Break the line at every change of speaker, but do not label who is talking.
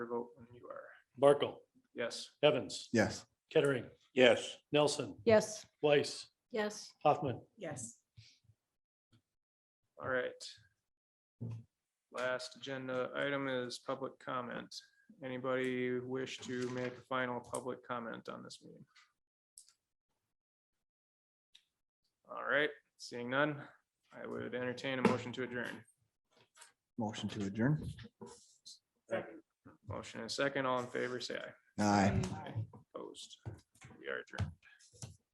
vote when you are.
Barkle,
Yes.
Evans,
Yes.
Kettering,
Yes.
Nelson,
Yes.
Weiss,
Yes.
Hoffman.
Yes.
All right. Last agenda item is public comment. Anybody wish to make a final public comment on this meeting? All right, seeing none, I would entertain a motion to adjourn.
Motion to adjourn.
Motion and second, all in favor, say aye.
Aye.
Opposed. We are adjourned.